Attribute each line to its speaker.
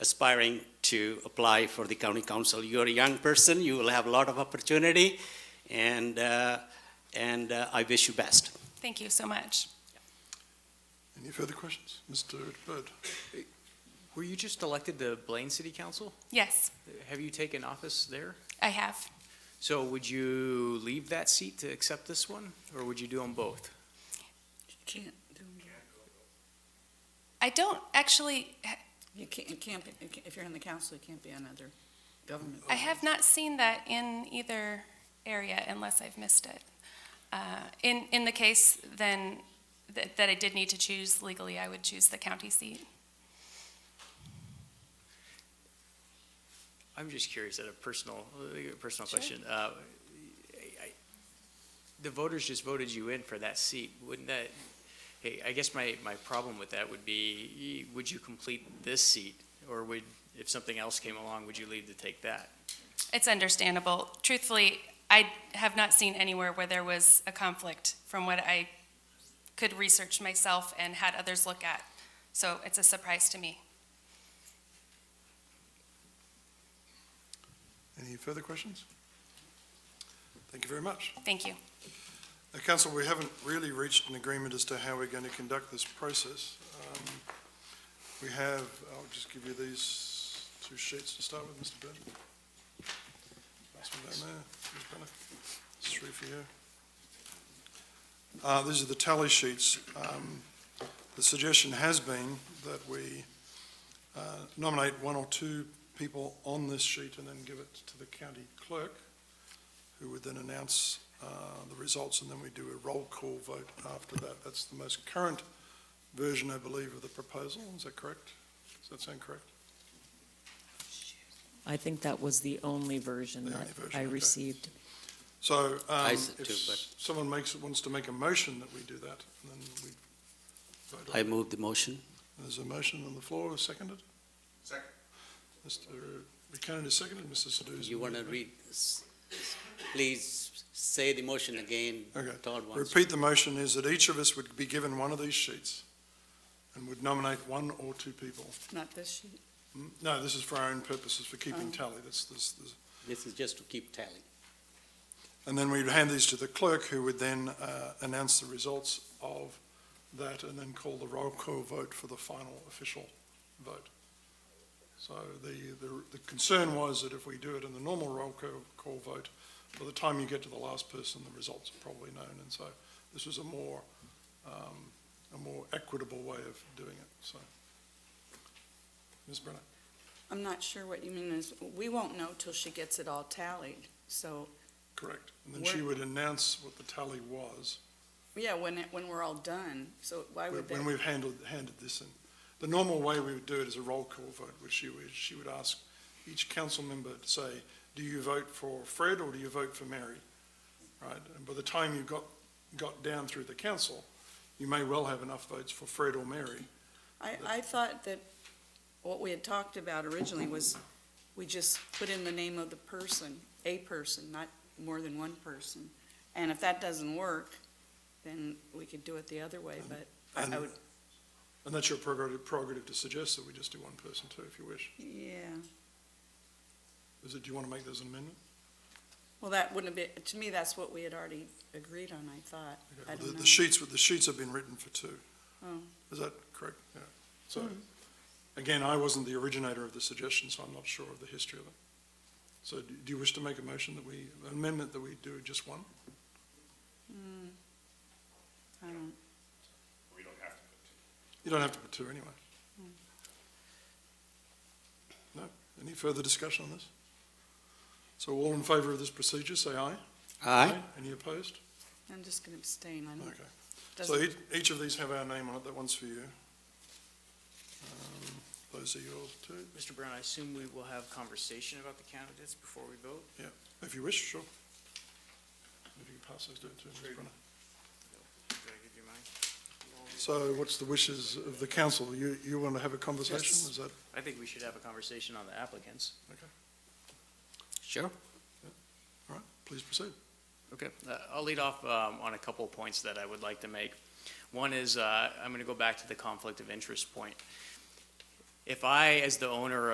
Speaker 1: aspiring to apply for the county council. You're a young person, you will have a lot of opportunity, and, uh, and uh, I wish you best.
Speaker 2: Thank you so much.
Speaker 3: Any further questions? Mr. Bird?
Speaker 4: Were you just elected to Blaine City Council?
Speaker 2: Yes,
Speaker 4: Have you taken office there?
Speaker 2: I have.
Speaker 4: So would you leave that seat to accept this one, or would you do them both?
Speaker 5: Can't do,
Speaker 2: I don't actually,
Speaker 5: you can't, you can't, be- you can't- if you're on the council, you can't be on other government.
Speaker 2: I have not seen that in either area unless I've missed it. Uh, In, in the case then that that I did need to choose legally, I would choose the county seat.
Speaker 4: I'm just curious, at a personal, a personal
Speaker 2: Sure.
Speaker 4: question. Uh, I- I- The voters just voted you in for that seat. Wouldn't that, hey, I guess my, my problem with that would be, would you complete this seat? Or would, if something else came along, would you leave to take that?
Speaker 2: It's understandable. Truthfully, I have not seen anywhere where there was a conflict from what I could research myself and had others look at. So it's a surprise to me.
Speaker 3: Any further questions? Thank you very much.
Speaker 2: Thank you.
Speaker 3: Now, council, we haven't really reached an agreement as to how we're going to conduct this process. Um, We have, I'll just give you these two sheets to start with, Mr. Bird. This one down there, Ms. Brenner. There's three for you. Uh, These are the tally sheets. Um, The suggestion has been that we uh, nominate one or two people on this sheet and then give it to the county clerk, who would then announce uh, the results, and then we do a roll call vote after that. That's the most current version, I believe, of the proposal. Is that correct? Does that sound correct?
Speaker 6: I think that was the only version
Speaker 3: The
Speaker 6: that
Speaker 3: only version,
Speaker 6: I
Speaker 3: okay.
Speaker 6: received.
Speaker 3: So um,
Speaker 1: said
Speaker 3: if
Speaker 1: too, but-
Speaker 3: someone makes, wants to make a motion that we do that, then we vote on
Speaker 1: I
Speaker 3: it.
Speaker 1: move the motion.
Speaker 3: There's a motion on the floor, seconded? Second. Mr. Buchanan is seconded, Mr. Sado is.
Speaker 7: You want to read, s- s- please say the motion again.
Speaker 1: Uh,
Speaker 3: Okay.
Speaker 7: Todd wants.
Speaker 3: Repeat the motion is that each of us would be given one of these sheets and would nominate one or two people.
Speaker 5: Not this sheet.
Speaker 3: Mm, No, this is for our own purposes, for keeping tally. That's, this, this.
Speaker 7: This is just to keep tally.
Speaker 3: And then we'd hand these to the clerk, who would then uh, announce the results of that and then call the roll call vote for the final official vote. So the, the, the concern was that if we do it in the normal roll call, call vote, by the time you get to the last person, the results are probably known. And so this was a more, um, a more equitable way of doing it, so. Ms. Brenner?
Speaker 5: I'm not sure what you mean is, we won't know till she gets it all tallied. So,
Speaker 3: Correct. And then she
Speaker 5: Where-
Speaker 3: would announce what the tally was
Speaker 5: yeah, when it, when we're all done, so why would
Speaker 3: when
Speaker 5: that?
Speaker 3: we've handled, handed this in. The normal way we would do it is a roll call vote, which you, would- she would ask each council member to say, do you vote for Fred or do you vote for Mary? Right? And by the time you got, got down through the council, you may well have enough votes for Fred or Mary.
Speaker 5: I, I thought that what we had talked about originally was, we just put in the name of the person, a person, not more than one person. And if that doesn't work, then we could do it the other way, but I- I
Speaker 3: And,
Speaker 5: would,
Speaker 3: and that's your prerogative, prerogative to suggest that we just do one person too, if you wish.
Speaker 5: yeah.
Speaker 3: Is it, do you want to make those an amendment?
Speaker 5: Well, that wouldn't have been, to me, that's what we had already agreed on, I thought.
Speaker 3: Okay,
Speaker 5: I
Speaker 3: well, the-
Speaker 5: don't know.
Speaker 3: The sheets, the sheets have been written for two.
Speaker 5: Oh. Hmm.
Speaker 3: Is that correct? Yeah. So, again, I wasn't the originator of the suggestion, so I'm not sure of the history of it. So do do you wish to make a motion that we, an amendment that we do just one?
Speaker 5: Hmm. I don't,
Speaker 3: You don't have to put two anyway.
Speaker 5: Hmm.
Speaker 3: No? Any further discussion on this? So all in favor of this procedure, say aye. Any opposed?
Speaker 5: I'm just gonna abstain, I don't,
Speaker 3: Okay. So
Speaker 5: Hmm. doesn't,
Speaker 3: each, each of these have our name on it, that one's for you. Um, Those are yours too,
Speaker 4: Mr. Brown, I assume we will have conversation about the candidates before we vote?
Speaker 3: if you wish, sure. If you can pass those down to Ms. Brenner.
Speaker 4: Did I give you mine?
Speaker 3: So what's the wishes of the council? You, you want to have a conversation?
Speaker 4: Yes.
Speaker 3: Is that,
Speaker 4: I think we should have a conversation on the applicants.
Speaker 7: Sure.
Speaker 3: all right, please proceed.
Speaker 4: Okay, uh, I'll lead off um, on a couple of points that I would like to make. One is, uh, I'm going to go back to the conflict of interest point. If I, as the owner of